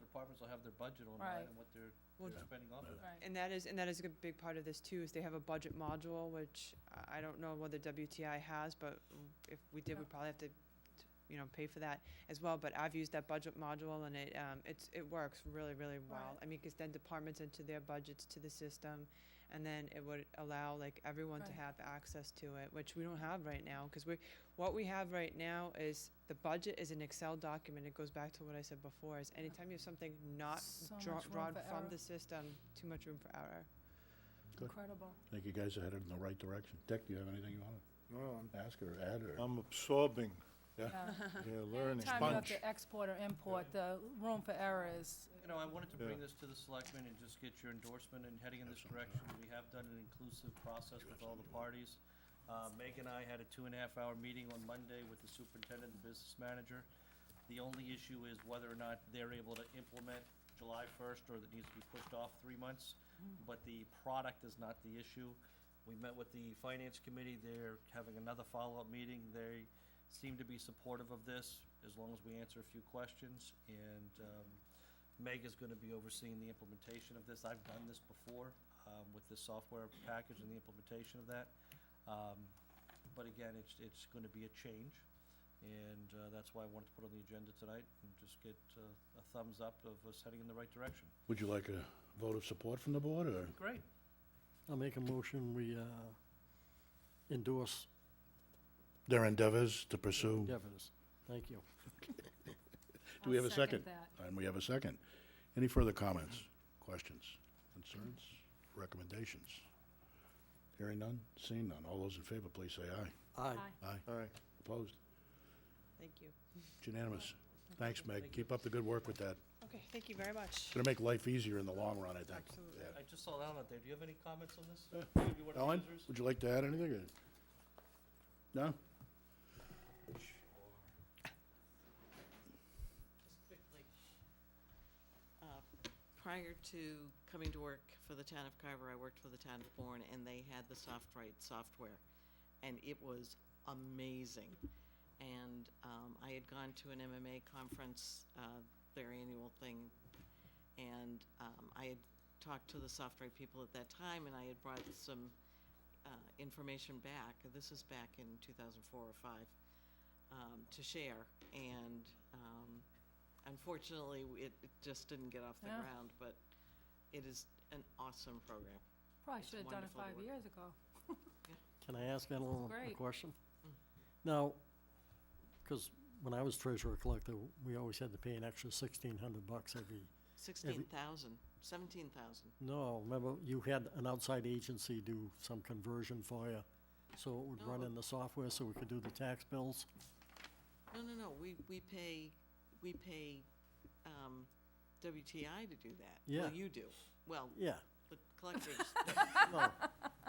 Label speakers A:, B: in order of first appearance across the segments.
A: departments will have their budget on
B: Right.
A: that and what they're,
C: Well,
A: they're spending off of that.
B: Right.
C: And that is, and that is a big part of this too, is they have a budget module, which I, I don't know whether WTI has, but if we did,
B: Yeah.
C: we'd probably have to, you know, pay for that as well, but I've used that budget module and it, um, it's, it works really, really well.
B: Right.
C: I mean, cause then departments enter their budgets to the system, and then it would allow like everyone to
B: Right.
C: have access to it, which we don't have right now, cause we, what we have right now is, the budget is an Excel document, it goes back to what I said before, is anytime you have something not
B: So
C: draw-
B: much room
C: drawn
B: for
C: from
B: error.
C: the system, too much room for error.
D: Good.
B: Incredible.
D: I think you guys are headed in the right direction. Dick, do you have anything you want
E: No, I'm,
D: to ask or add or?
E: I'm absorbing,
B: Yeah.
E: yeah,
B: Anytime
E: learning.
B: you have
D: Sponge.
B: to export or import, the room for error is,
A: You know, I wanted to bring
E: Yeah.
A: this to the selectmen and just get your endorsement and heading in this
D: That's all right.
A: direction. We have done an inclusive process with all the
D: Absolutely.
A: parties. Uh, Meg and I had a two and a half hour meeting on Monday with the superintendent and business manager. The only issue is whether or not they're able to implement July first or that needs to be pushed off three months. But the product is not the issue. We met with the finance committee. They're having another follow-up meeting. They seem to be supportive of this as long as we answer a few questions. And, um, Meg is gonna be overseeing the implementation of this. I've done this before, um, with the software package and the implementation of that. Um, but again, it's, it's gonna be a change, and, uh, that's why I wanted to put on the agenda tonight and just get, uh, a thumbs up of us heading in the right direction.
D: Would you like a vote of support from the board or?
A: Great.
F: I'll make a motion, we uh, endorse
D: Their endeavors to pursue.
F: endeavors. Thank you.
D: Do we
B: I'll
D: have a second?
B: that.
D: And we have a second. Any further comments, questions, concerns, recommendations? Hearing none, seeing none. All those in favor, please say aye.
F: Aye.
B: Aye.
D: Aye.
E: All right.
D: Opposed?
C: Thank you.
D: It's unanimous. Thanks, Meg. Keep up the good work with that.
C: Okay, thank you very much.
D: It's gonna make life easier in the long run, I think.
C: Absolutely.
D: Yeah.
A: I just saw Alan out there. Do you have any comments on this?
D: Uh,
A: Any of you want to
D: Ellen,
A: users?
D: would you like to add anything? or- No?
G: Just quickly, uh, prior to coming to work for the town of Carver, I worked for the town of Bourne, and they had the SoftWrite software, and it was amazing. And um, I had gone to an MMA conference, uh, their annual thing, and um, I had talked to the SoftWrite people at that time, and I had brought some uh, information back. This is back in 2004 or five um, to share, and um, unfortunately, w- it, it just didn't get off the
B: Yeah.
G: ground, but it is an awesome program.
B: Probably
G: It's
B: should have done it
G: wonderful to
B: five
G: work
B: years ago.
F: Can I ask Ellen a
B: Great.
F: question?
G: Mm.
F: Now, because when I was treasurer collector, we always had to pay an extra sixteen hundred bucks every,
G: Sixteen thousand, seventeen thousand.
F: no, remember, you had an outside agency do some conversion for you, so it would run
G: No.
F: in the software so we could do the tax bills?
G: No, no, no, we, we pay, we pay um, WTI to do that.
F: Yeah.
G: Well, you do. Well,
F: Yeah,
G: the collectors.
F: no.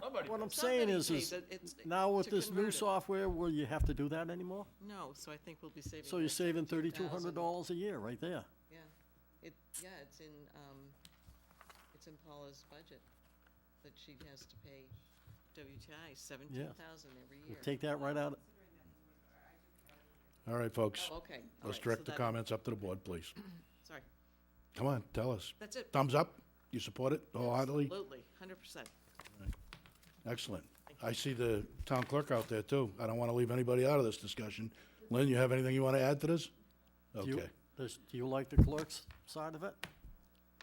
A: Somebody.
F: What I'm saying
G: somebody
F: is,
G: pays
F: is
G: it, it's-
F: now with
G: to
F: this
G: convert
F: new
G: it.
F: software, will you have to do that anymore?
G: No, so I think we'll be saving.
F: So you're
G: like
F: saving thirty-two hundred
G: $17,000.
F: dollars a year, right there.
G: Yeah, it, yeah, it's in, um, it's in Paula's budget, that she has to pay WTI seventeen thousand every
F: We'll
G: year.
F: take that right out,
D: All right, folks.
G: Oh, Okay. all right,
D: Let's
G: so
D: direct the
G: that-
D: comments up to the board, please.
G: Sorry,
D: Come on, tell us.
G: that's it.
D: Thumbs up? You support it wholeheartedly?
G: Absolutely, hundred percent.
D: Excellent. I see the town clerk out there, too. I don't want to leave anybody out of this discussion. Lynn, you have anything you want to add to this?
F: Do you,
D: Okay.
F: does, do you like the clerk's side of it?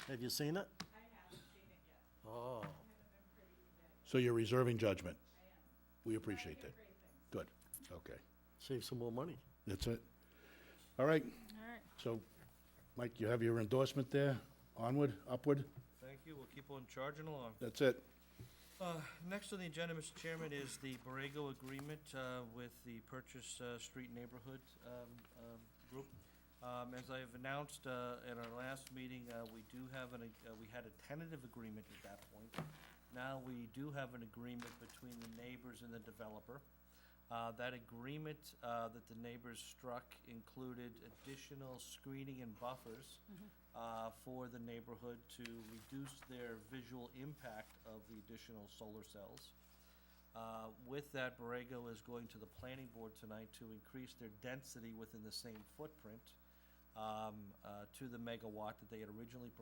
F: Have you seen it? I haven't seen it yet.
D: So you're reserving judgment? We appreciate that. Good. Okay.
F: Oh, save some more money.
D: That's it. All right.
B: All right.
D: So, Mike, you have your endorsement there? Onward, upward?
A: Thank you. We'll keep on charging along.
D: That's it.
A: Uh, Next on the agenda, Mr. Chairman, is the Borrego Agreement uh, with the Purchase uh, Street Neighborhood um, um, Group. Um, As I have announced uh, at our last meeting, uh, we do have an, ag- uh, we had a tentative agreement at that point. Now we do have an agreement between the neighbors and the developer. Uh, That agreement uh, that the neighbors struck included additional screening and buffers uh, for the neighborhood to reduce their visual impact of the additional solar cells. Uh, With that, Borrego is going to the planning board tonight to increase their density within the same footprint. Uh, um, uh, to the megawatt that they had originally proposed